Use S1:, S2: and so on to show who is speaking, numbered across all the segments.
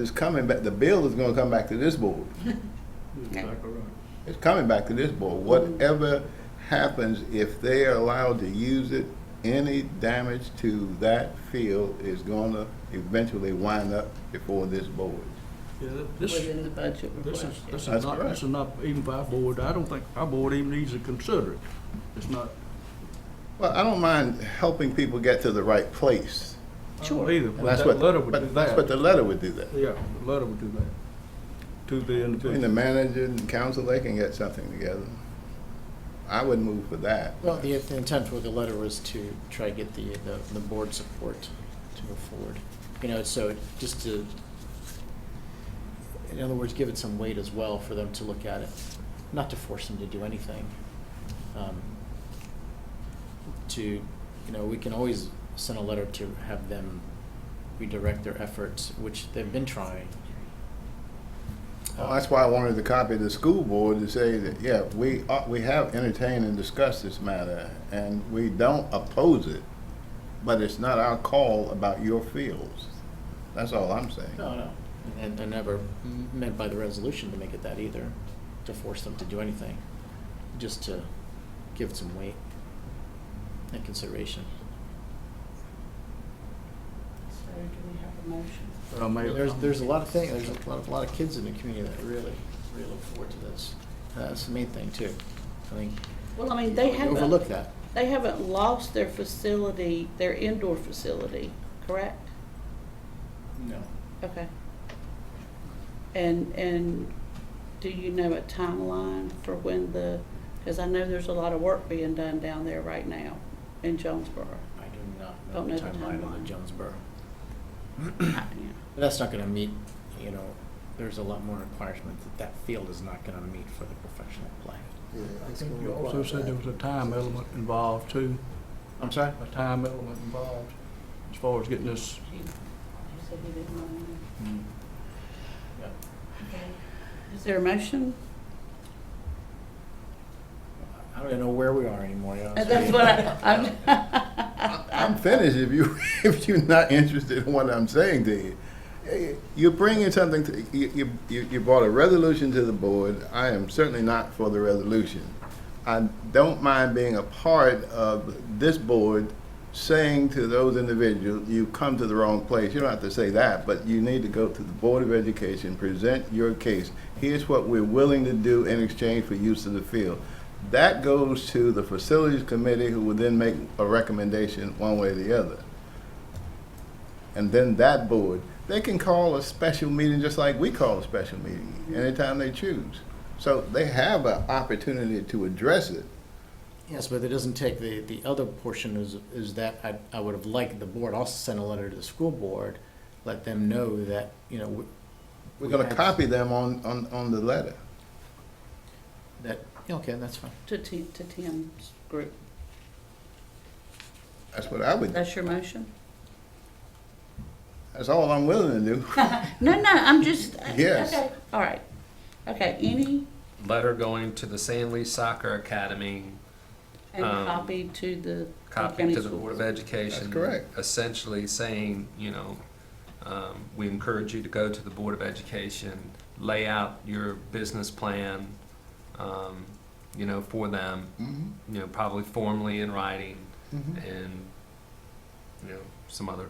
S1: It's coming back, the bill is gonna come back to this board.
S2: Exactly right.
S1: It's coming back to this board. Whatever happens, if they are allowed to use it, any damage to that field is gonna eventually wind up before this board.
S2: Yeah, that- this,
S3: within the budget
S2: this
S3: request.
S2: is, this
S1: That's
S2: is not,
S1: correct.
S2: this is not even for our board. I don't think our board even needs to consider it. It's not,
S1: Well, I don't mind helping people get to the right place.
S2: I don't
S3: Sure.
S2: either,
S1: And
S2: but
S1: that's
S2: that
S1: what,
S2: letter would do
S1: but that's what
S2: that.
S1: the letter would do that.
S2: Yeah, the letter would do that to the
S1: Between the
S2: individual.
S1: manager and council, they can get something together. I would move for that.
S4: Well, the the intent with the letter was to try to get the, the, the board support to move forward. You know, so it- just to, in other words, give it some weight as well for them to look at it, not to force them to do anything. Um, To, you know, we can always send a letter to have them redirect their efforts, which they've been trying.
S1: Well, that's why I wanted to copy the school board to say that, yeah, we, are- we have entertained and discussed this matter, and we don't oppose it, but it's not our call about your fields. That's all I'm saying.
S4: No, no, and, and never m- meant by the resolution to make it that either, to force them to do anything, just to give it some weight and consideration.
S3: So do we have a motion?
S2: I may-
S4: There's, there's a lot of things, there's a lot, of- lot of kids in the community that really, really look forward to this. That's the main thing too. I think,
S3: Well, I mean, they
S4: we overlook
S3: haven't,
S4: that.
S3: they haven't lost their facility, their indoor facility, correct?
S4: No.
S3: Okay. And, and do you know a timeline for when the, because I know there's a lot of work being done down there right now in Jonesboro.
S4: I do not
S3: Don't
S4: know the
S3: know the
S4: timeline on
S3: timeline.
S4: the Jonesboro.
S3: Yeah.
S4: But that's not gonna meet, you know, there's a lot more requirements that that field is not gonna meet for the professional play.
S2: I think You also said there was a time element involved too,
S4: I'm sorry?
S2: a time element involved as far as getting this.
S3: He- he said he didn't want to. Is there a motion?
S4: I don't even know where we are anymore. you know, so-
S3: That's what I, I'm.
S1: I'm finished if you, if you're not interested in what I'm saying to you. Eh, You're bringing something to, you, you- you, you brought a resolution to the board. I am certainly not for the resolution. I don't mind being a part of this board saying to those individuals, you've come to the wrong place. You don't have to say that, but you need to go to the Board of Education, present your case. Here's what we're willing to do in exchange for use of the field. That goes to the Facilities Committee, who will then make a recommendation one way or the other. And then that board, they can call a special meeting just like we call a special meeting, anytime they choose. So they have an opportunity to address it.
S4: Yes, but it doesn't take the, the other portion is, is that I, I would have liked the board also send a letter to the school board, let them know that, you know, we-
S1: We're gonna
S4: have-
S1: copy them on, on, on the letter.
S4: that, okay, that's fine.
S3: To Ti- to Tim's group.
S1: That's what I would,
S3: That's your motion?
S1: that's all I'm willing to do.
S3: No, no, I'm just. I-
S1: Yes.
S3: okay, All right. Okay, any,
S5: letter going to the San Luis Soccer Academy,
S3: and
S5: Um,
S3: copy to the.
S5: copy
S3: county
S5: to the
S3: school.
S5: Board of Education.
S1: That's correct.
S5: Essentially saying, you know, um, we encourage you to go to the Board of Education, lay out your business plan, um, you know, for them,
S1: Mhm,
S5: you know, probably formally in writing
S1: mhm.
S5: and, you know, some other,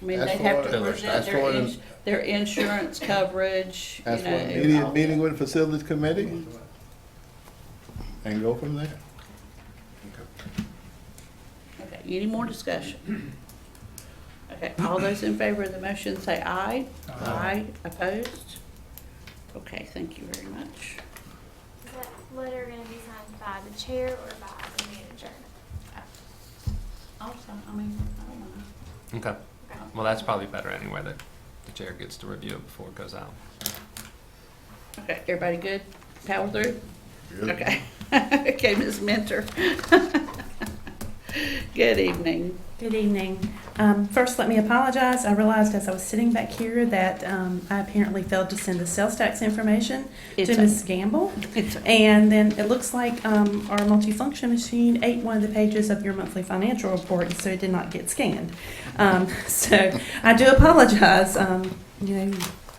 S3: I mean,
S1: Ask
S3: they
S1: for
S3: have
S1: it.
S3: to present
S1: Ask for
S3: their,
S1: it in-
S3: ins- their insurance coverage, you know. Mm-hmm.
S1: Ask for an
S3: and all
S1: immediate
S3: that.
S1: meeting with the Facilities Committee and go from there.
S3: Okay, any more discussion? Okay, all those in favor of the motion say aye. Aye. Opposed? Okay, thank you very much.
S6: Is that letter gonna be signed by the chair or by the manager?
S3: Also, I mean, I don't know.
S5: okay. Well, that's probably better anyway, that the chair gets to review it before it goes out.
S3: Okay, everybody good? Power through?
S1: Good.
S3: Okay. Okay, Ms. Mentor. Good evening.
S7: Good evening. Um, First, let me apologize. I realized as I was sitting back here that um, I apparently failed to send the sales tax information
S3: It's
S7: to
S3: okay.
S7: Ms. Gamble.
S3: It's-
S7: And then it looks like um, our multifunction machine ate one of the pages of your monthly financial report, and so it did not get scanned. Um, So I do apologize. Um, You know,